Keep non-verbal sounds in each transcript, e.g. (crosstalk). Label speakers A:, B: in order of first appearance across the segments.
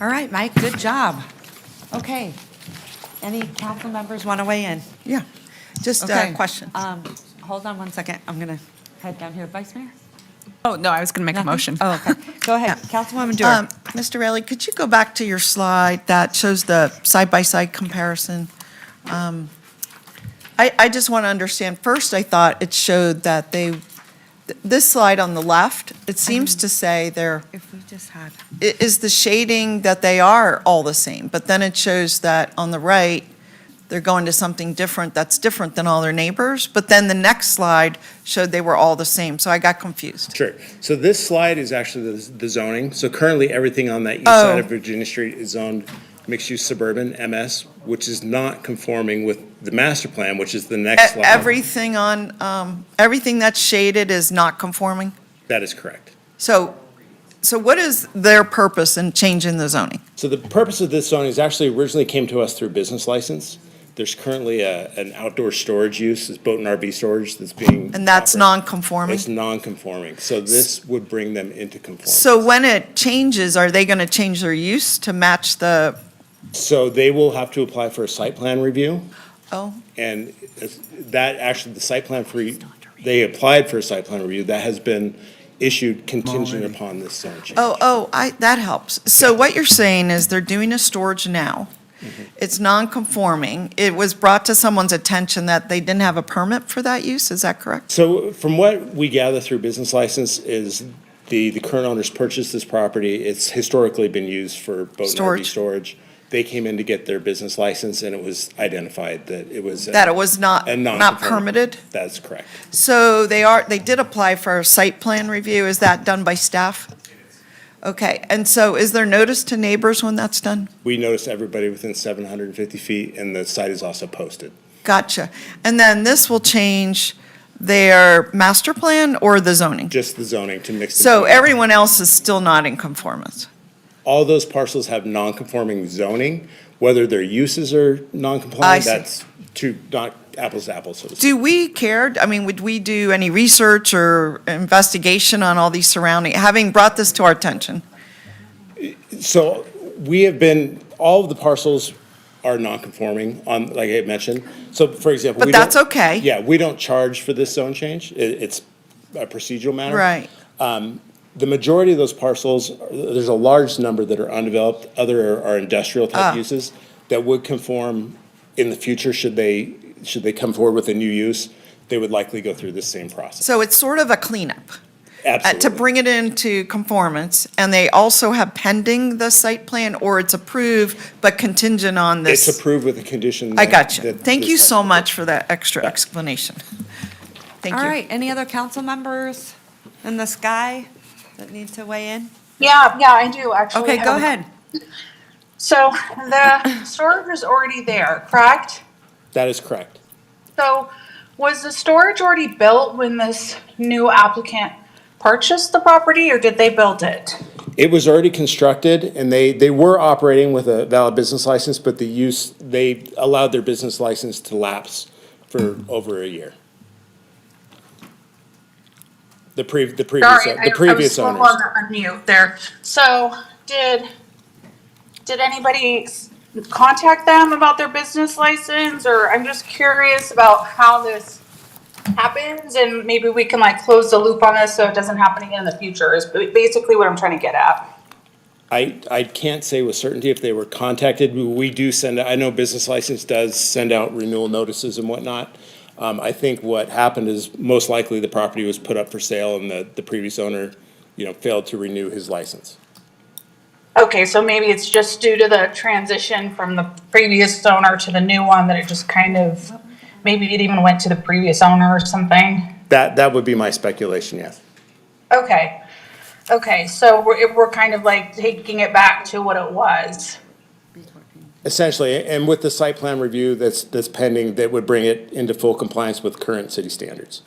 A: All right, Mike, good job. Okay. Any council members want to weigh in?
B: Yeah, just
A: Okay.
B: a question.
A: Um, Hold on one second. I'm going to head down here. Vice Mayor?
C: Oh, no, I was going to make a
A: Nothing?
C: motion.
A: Oh, okay. Go ahead. Councilwoman Dewar.
B: Um, Mr. Rayleigh, could you go back to your slide that shows the side-by-side comparison? Um, I, I just want to understand, first, I thought it showed that they, th- this slide on the left, it seems to say they're,
A: If we just had.
B: i- is the shading that they are all the same, but then it shows that on the right, they're going to something different that's different than all their neighbors, but then the next slide showed they were all the same, so I got confused.
D: Sure. So this slide is actually the the zoning. So currently, everything on that east
B: Oh.
D: side of Virginia Street is zoned mixed-use suburban, MS, which is not conforming with the master plan, which is the next
B: E-
D: slide.
B: Everything on, um, everything that's shaded is not conforming?
D: That is correct.
B: So, so what is their purpose in changing the zoning?
D: So the purpose of this zoning is actually originally came to us through business license. There's currently a, an outdoor storage use, this boat and RV storage that's being.
B: And that's
D: offered.
B: non-conforming?
D: It's non-conforming. So this would bring them into conformity.
B: So when it changes, are they going to change their use to match the,
D: So they will have to apply for a site plan review.
B: oh,
D: And it's- that, actually, the site plan for, they applied for a site plan review, that has been issued contingent upon this zone change.
B: oh, oh, I, that helps. So what you're saying is they're doing a storage now.
D: Mm-hmm.
B: It's non-conforming. It was brought to someone's attention that they didn't have a permit for that use, is that correct?
D: So from what we gather through business license is the, the current owners purchased this property. It's historically been used for boat and RV
B: Storage.
D: storage. They came in to get their business license and it was identified that it was. a-
B: That it was not,
D: a
B: not
D: non-conforming.
B: permitted?
D: That's correct.
B: So they are, they did apply for a site plan review. Is that done by staff? Okay, and so is there notice to neighbors when that's done?
D: We noticed everybody within seven hundred and fifty feet and the site is also posted.
B: Gotcha. And then this will change their master plan or the zoning?
D: Just the zoning to mix. the
B: So
D: zoning.
B: everyone else is still not in conformance?
D: all those parcels have non-conforming zoning, whether their uses are
B: I
D: non-compliant,
B: see.
D: that's to, not apples to apples, so to speak.
B: Do we care, I mean, would we do any research or investigation on all these surrounding, having brought this to our attention?
D: So we have been, all of the parcels are non-conforming on, like I mentioned. So for example.
B: But
D: we don't-
B: that's okay.
D: Yeah, we don't charge for this zone change. It, it's a procedural matter.
B: Right.
D: The majority of those parcels, there's a large number that are undeveloped, other are industrial
B: Ah.
D: type uses that would conform in the future should they, should they come forward with a new use, they would likely go through this same process.
B: So it's sort of a cleanup? uh,
D: Absolutely.
B: to bring it into conformance, and they also have pending the site plan, or it's approved but contingent on
D: It's
B: this?
D: approved with the condition.
B: I
D: that-
B: got you.
D: that
B: Thank
D: this-
B: you so much for that extra explanation. (laughs) Thank you.
A: All right, any other council members in the sky that need to weigh in?
E: Yeah, yeah, I do actually.
A: Okay, go
E: Oh, have a-
A: ahead.
E: So the storage is already there, correct?
D: That is correct.
E: So was the storage already built when this new applicant purchased the property or did they build it?
D: It was already constructed and they, they were operating with a valid business license, but the use, they allowed their business license to lapse for over a year. The pre, the previous,
E: Sorry, I
D: uh, the
E: I was
D: previous
E: slow on
D: owners.
E: the unmute there. So did, did anybody s- contact them about their business license? Or I'm just curious about how this happens and maybe we can like close the loop on this so it doesn't happen again in the future is ba- basically what I'm trying to get at.
D: I, I can't say with certainty if they were contacted. We- We do send, I know business license does send out renewal notices and whatnot. Um, I think what happened is most likely the property was put up for sale and the, the previous owner, you know, failed to renew his license.
E: Okay, so maybe it's just due to the transition from the previous owner to the new one that it just kind of, maybe it even went to the previous owner or something.
D: That, that would be my speculation, yes.
E: Okay, okay, so we're, we're kind of like taking it back to what it was.
D: Essentially, and with the site plan review that's, that's pending, that would bring it into full compliance with current city standards.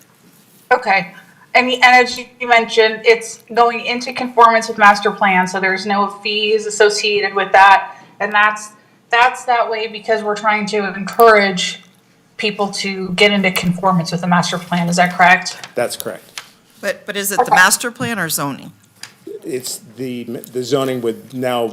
E: Okay, and, and as you you mentioned, it's going into conformance with master plan, so there's no fees associated with that. And that's, that's that way because we're trying to encourage people to get into conformance with the master plan, is that correct?
D: That's correct.
B: But, but is it the
E: Okay.
B: master plan or zoning?
D: It's the, the zoning would now